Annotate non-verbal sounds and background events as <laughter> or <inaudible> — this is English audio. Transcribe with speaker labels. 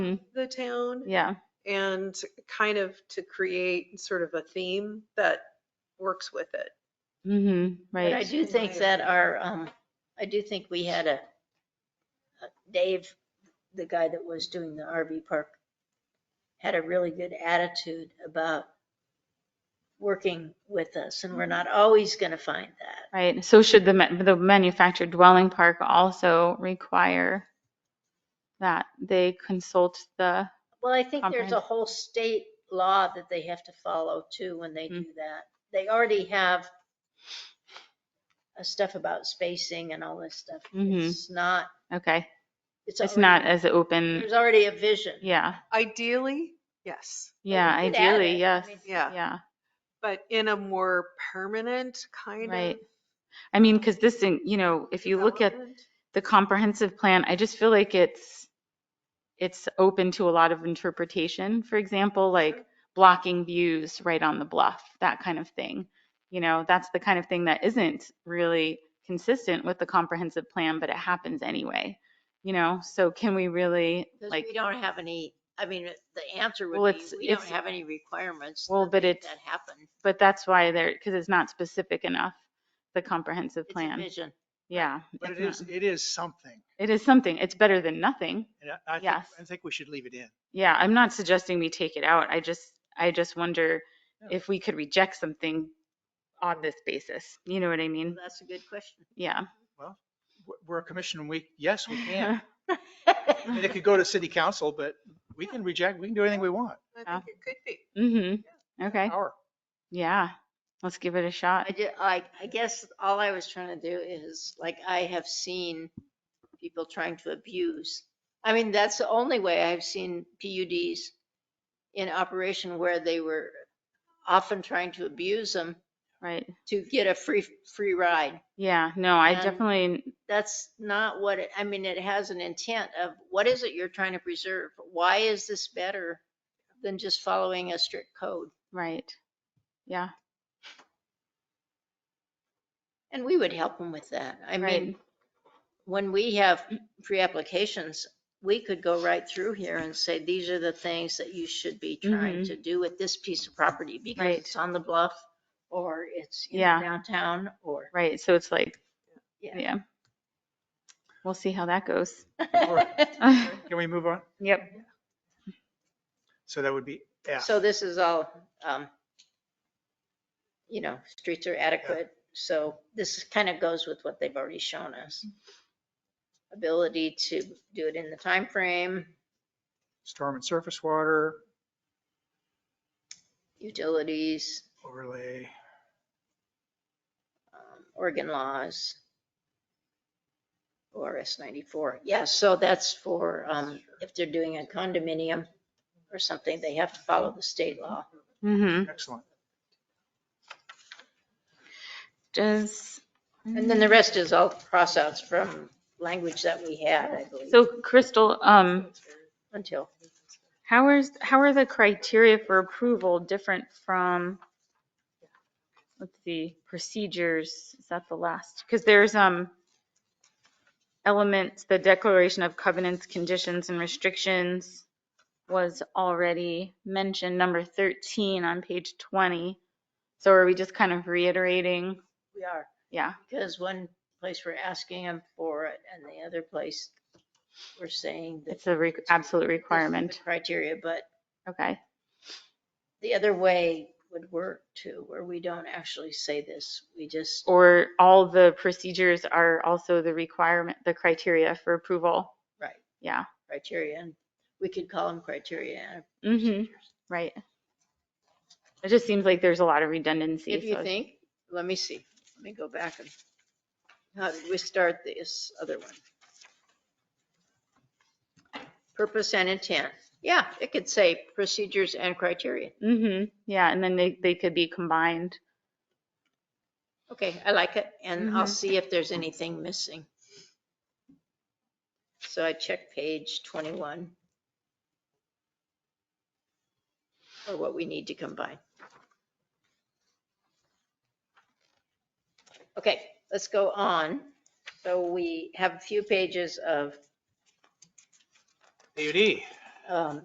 Speaker 1: Mhm.
Speaker 2: the town
Speaker 1: Yeah,
Speaker 2: and kind of to create sort of a theme that works with it.
Speaker 1: hmm
Speaker 3: But I
Speaker 1: right.
Speaker 3: do think that our, um, I do think we had a, uh, Dave, the guy that was doing the RV park, had a really good attitude about working with us, and we're not always gonna find that.
Speaker 1: Right, so should the, ma- the manufactured dwelling park also require that they consult the,
Speaker 3: Well, I think there's a whole state law that they have to follow too when they
Speaker 1: Mm-hmm.
Speaker 3: do that. They already have uh, stuff about spacing and all this stuff.
Speaker 1: Mhm.
Speaker 3: It's not,
Speaker 1: okay,
Speaker 3: it's.
Speaker 1: it's
Speaker 3: already-
Speaker 1: not as open,
Speaker 3: There's already a vision.
Speaker 1: yeah,
Speaker 2: Ideally, yes,
Speaker 1: yeah,
Speaker 3: we could add
Speaker 1: ideally,
Speaker 3: it.
Speaker 1: yes,
Speaker 3: I mean-
Speaker 2: yeah,
Speaker 1: yeah,
Speaker 2: but in a more permanent kind of.
Speaker 1: right. I mean, because this, in- you know, if you look at
Speaker 2: development.
Speaker 1: the comprehensive plan, I just feel like it's, it's open to a lot of interpretation. For example, like blocking views right on the bluff, that kind of thing. You know, that's the kind of thing that isn't really consistent with the comprehensive plan, but it happens anyway. You know, so can we really,
Speaker 3: Because
Speaker 1: like,
Speaker 3: we don't have any, I mean, the answer
Speaker 1: Well,
Speaker 3: would be,
Speaker 1: it's-
Speaker 3: we don't
Speaker 1: it's-
Speaker 3: have any requirements.
Speaker 1: Well,
Speaker 3: that
Speaker 1: but
Speaker 3: make
Speaker 1: it's
Speaker 3: That happen.
Speaker 1: but that's why there, because it's not specific enough, the comprehensive
Speaker 3: It's a
Speaker 1: plan.
Speaker 3: vision.
Speaker 1: Yeah.
Speaker 4: But it
Speaker 1: it's
Speaker 4: is,
Speaker 1: not-
Speaker 4: it is something.
Speaker 1: It is something. It's better than nothing.
Speaker 4: And I- I think,
Speaker 1: Yes.
Speaker 4: I think we should leave it in.
Speaker 1: Yeah, I'm not suggesting we take it out. I just, I just wonder
Speaker 4: Yeah.
Speaker 1: if we could reject something on this basis. You know what I mean?
Speaker 3: That's a good
Speaker 1: <laughs>
Speaker 3: question.
Speaker 1: Yeah.
Speaker 4: We're- We're a commission and we, yes, we can.
Speaker 1: <laughs>
Speaker 4: I mean, it could go to city council, but we can reject, we can do anything we want.
Speaker 2: I think it could be.
Speaker 1: Mm-hmm. Okay.
Speaker 4: Our-
Speaker 1: Yeah. Let's give it a
Speaker 3: I
Speaker 1: shot.
Speaker 3: did, I, I guess all I was trying to do is, like, I have seen people trying to abuse. I mean, that's the only way I've seen PUDs in operation where they were often trying to abuse them
Speaker 1: Right.
Speaker 3: to get a free, free ride.
Speaker 1: Yeah. No, I
Speaker 3: And-
Speaker 1: definitely,
Speaker 3: that's not what it, I mean, it has an intent of what is it you're trying to preserve? Why is this better than just following a strict code?
Speaker 1: right. Yeah.
Speaker 3: And we would help them with that. I
Speaker 1: Right.
Speaker 3: mean, when we have pre-applications, we could go right through here and say, these are the things that you should be trying
Speaker 1: Mhm.
Speaker 3: to do with this piece of property because
Speaker 1: Right.
Speaker 3: it's on the bluff or it's in
Speaker 1: Yeah.
Speaker 3: downtown or.
Speaker 1: Right. So it's like,
Speaker 3: Yeah.
Speaker 1: yeah. We'll see how that goes.
Speaker 4: Alright.
Speaker 1: <laughs>
Speaker 3: <laughs>
Speaker 4: Can we move on?
Speaker 1: Yep.
Speaker 4: So that would be F.
Speaker 3: So this is all, um, you know, streets are adequate, so this kind of goes with what they've already shown us. Ability to do it in the time frame,
Speaker 4: storm and surface water
Speaker 3: utilities,
Speaker 4: overlay.
Speaker 3: um, Oregon laws, ORS 94. Yeah, so that's for, um, if they're doing a condominium or something, they have to follow the state law.
Speaker 1: Mm-hmm.
Speaker 4: Excellent.
Speaker 1: Does.
Speaker 3: And
Speaker 1: mm-hmm.
Speaker 3: then the rest is all crossouts from language that we had, I believe,
Speaker 1: So Crystal, um,
Speaker 3: until.
Speaker 1: How is, how are the criteria for approval different from, let's see, procedures? Is that the last? Because there's, um, elements, the declaration of covenants, conditions and restrictions was already mentioned, number 13 on page 20. So are we just kind of reiterating?
Speaker 3: We are.
Speaker 1: Yeah,
Speaker 3: Because one place we're asking them for it and the other place we're saying that.
Speaker 1: it's a re- absolute
Speaker 3: this is the
Speaker 1: requirement.
Speaker 3: Criteria, but
Speaker 1: Okay,
Speaker 3: the other way would work too, where we don't actually say this. We just,
Speaker 1: or all the procedures are also the requirement, the criteria for approval?
Speaker 3: right,
Speaker 1: Yeah.
Speaker 3: criteria, and we could call them criteria. and
Speaker 1: Mm-hmm,
Speaker 3: procedures.
Speaker 1: right. It just seems like there's a lot of redundancy.
Speaker 3: If you
Speaker 1: so-
Speaker 3: think, let me see, let me go back and, how did we start this other one? Purpose and intent. Yeah, it could say procedures and criteria.
Speaker 1: Mhm, yeah, and then they, they could be combined.
Speaker 3: Okay, I like it, and I'll
Speaker 1: Mhm.
Speaker 3: see if there's anything missing. So I check page 21. Or what we need to combine. Okay, let's go on. So we have a few pages of
Speaker 4: AUD.
Speaker 3: um,